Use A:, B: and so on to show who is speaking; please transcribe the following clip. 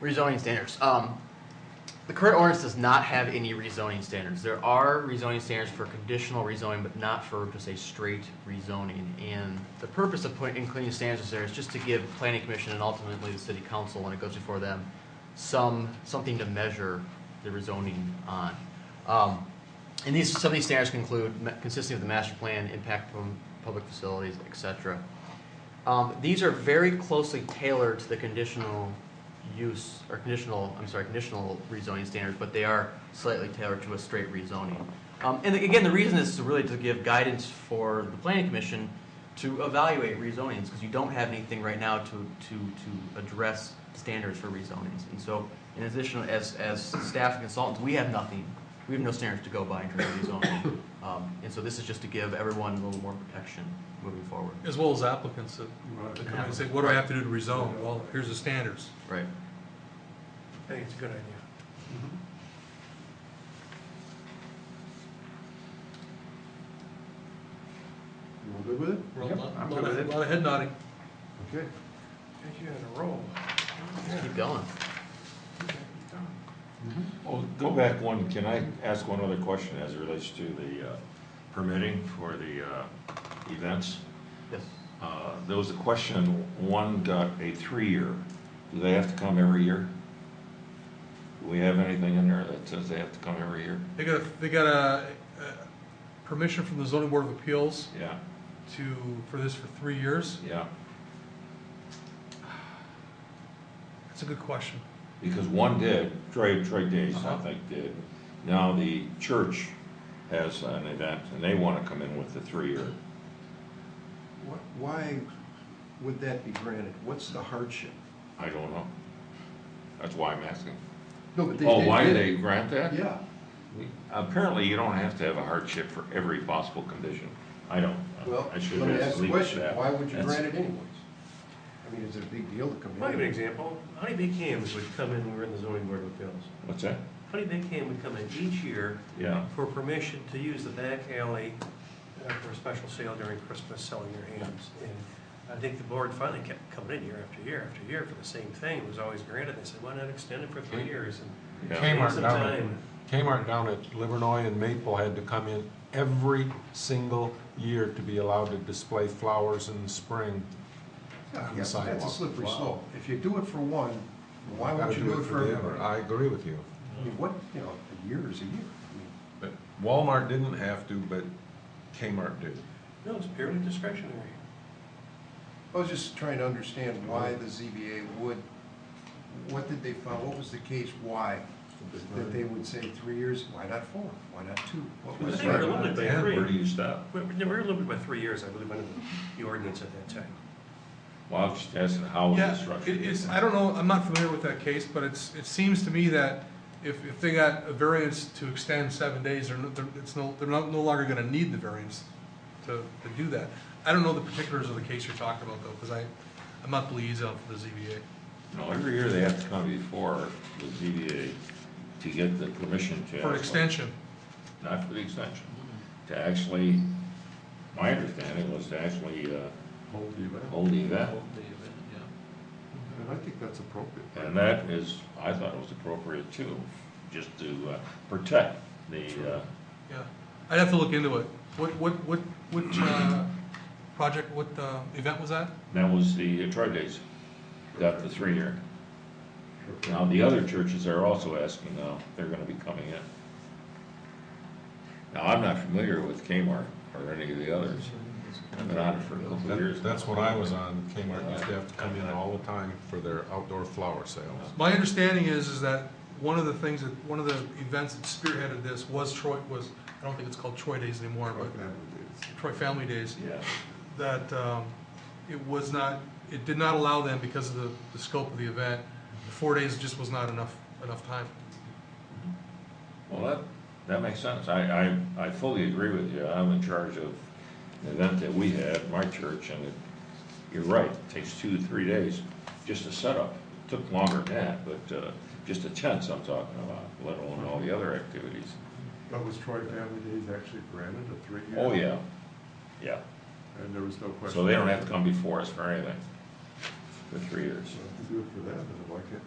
A: Rezoning standards. Um, the current ordinance does not have any rezoning standards. There are rezoning standards for conditional rezoning, but not for just a straight rezoning. And the purpose of putting, including standards there is just to give planning commission and ultimately the city council, when it goes before them, some, something to measure the rezoning on. Um, and these, some of these standards can include ma- consistency of the master plan, impact from public facilities, et cetera. Um, these are very closely tailored to the conditional use, or conditional, I'm sorry, conditional rezoning standards, but they are slightly tailored to a straight rezoning. Um, and again, the reason is to really to give guidance for the planning commission to evaluate rezonings, because you don't have anything right now to, to, to address standards for rezonings. And so, in addition, as, as staff and consultants, we have nothing, we have no standards to go by in terms of rezoning. Um, and so this is just to give everyone a little more protection moving forward.
B: As well as applicants that that come in and say, what do I have to do to rezone? Well, here's the standards.
A: Right.
C: I think it's a good idea.
D: Mm-hmm. You all good with it?
B: We're all-
C: Yep,
D: I'm
B: lot
D: good with
B: of-
D: it.
B: lot of head nodding.
D: Okay.
C: Thank you in a row.
A: Just keep going.
E: Well, go back one, can I ask one other question as it relates to the uh, permitting for the uh, events?
A: Yes.
E: Uh, There was a question, one got a three-year, do they have to come every year? Do we have anything in there that says they have to come every year?
B: They got, a- they got a, a permission from the zoning board of appeals
E: Yeah,
B: to, for this for three years.
E: yeah,
B: That's a good question.
E: because one did, Troy, Troy Days, I
B: Uh-huh.
E: think, did. Now the church has an event, and they want to come in with the three-year.
D: Wh- Why would that be granted? What's the hardship?
E: I don't know. That's why I'm asking.
D: No, but
E: Oh, why do they grant that?
D: Yeah.
E: Apparently, you don't have to have a hardship for every possible condition. I don't.
D: Well,
E: I
D: let
E: should
D: me
E: just
D: ask the
E: leave it at
D: question.
E: that.
D: Why would you
E: That's-
D: grant it anyways? I mean, is it a big deal to come in?
F: I'll give you an example. Honey Big Hams would come in, when we were in the zoning board of appeals.
E: What's that?
F: Honey Big Ham would come in each year
E: Yeah,
F: for permission to use the back alley uh, for a special sale during Christmas, selling their hams. And I think the board finally kept coming in year after year after year for the same thing. It was always granted. They said, why not extend it for three years? And
E: yeah.
F: gave
G: Kmart
F: some
G: down at,
F: time.
G: Kmart down at Livernois and Maple had to come in every single year to be allowed to display flowers in the spring.
D: Yeah,
G: on
D: yeah,
G: the
D: That's a
G: sidewalk.
D: slippery
E: Wow.
D: slope. If you do it for one, why
G: Gotta
D: won't you do it for
G: the
D: everybody?
G: other. I agree with you.
D: I mean, what, you know, a year is a year. I mean,
G: But Walmart didn't have to, but Kmart did.
F: No, it's purely discretionary.
D: I was just trying to understand why the ZBA would, what did they find, what was the case, why? That they would say three years, why not four, why not two? What
F: I
D: was
F: think we're
D: that?
F: limited by
E: Yeah, Where do
F: three.
E: you stop?
F: We we were limited by three years, I believe, under the ordinance at that time.
E: Well, I was just asking how
B: Yeah,
E: is it structured?
B: it- It's, I don't know, I'm not familiar with that case, but it's, it seems to me that if, if they got a variance to extend seven days, they're, no- they're, it's no, they're no no longer gonna need the variance to, to do that. I don't know the particulars of the case you're talking about though, because I, I'm not the liaison for the ZBA.
E: No, every year they have to come before the ZBA to get the permission to.
B: For an
E: actually-
B: extension,
E: Not for the extension, to actually, my understanding was to actually uh,
H: Hold the event.
E: hold the event.
H: Hold the event, yeah.
D: And I think that's appropriate.
E: And that is, I thought it was appropriate too, just to uh, protect the, uh,
B: yeah. I'd have to look into it. What, what, what, what, uh, project, what, uh, event was that?
E: that was the Troy Days, got the three-year. Now, the other churches are also asking now, they're gonna be coming in. Now, I'm not familiar with Kmart or any of the others. I've been on it for a couple of years.
G: That- That's what I was on. Kmart used to have to come in all the time for their outdoor flower sales.
B: My understanding is, is that one of the things that, one of the events that spearheaded this was Troy, was, I don't think it's called Troy Days anymore, but Troy Family Days,
E: Yeah,
B: that um, it was not, it did not allow them because of the, the scope of the event. Four days just was not enough, enough time.
E: well, that, that makes sense. I, I, I fully agree with you. I'm in charge of an event that we had, at my church, and it, you're right, it takes two, three days just to set up. It Took longer than that, but, uh, just the tents I'm talking about, let alone all the other activities.
H: But was Troy Family Days actually granted a three-year?
E: Oh, yeah, yeah.
H: And there was no question.
E: So they don't have to come before us for anything for three years.
H: So if you Do it for them, then why can't